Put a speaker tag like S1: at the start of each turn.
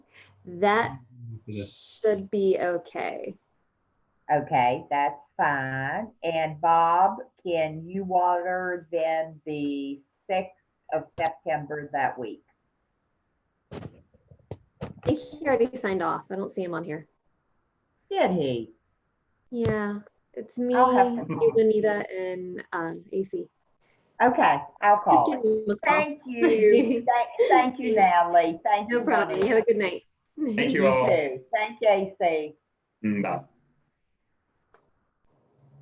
S1: That
S2: Yeah.
S1: should be okay.
S3: Okay, that's fine. And Bob, can you water then the sixth of September that week?
S1: I think He already signed off. I don't see him on here.
S3: Did he?
S1: Yeah, it's me,
S3: I'll have to call.
S1: you, Anita, and um, AC.
S3: Okay, I'll
S1: Just
S3: call.
S1: give
S3: him.
S1: him a call.
S3: Thank you. Thank, thank you, Natalie. Thank you.
S1: No problem. You
S3: Bonnie.
S1: have a good night.
S2: Thank you
S3: You
S2: all.
S3: too. Thank JC.
S2: Mm, Bye.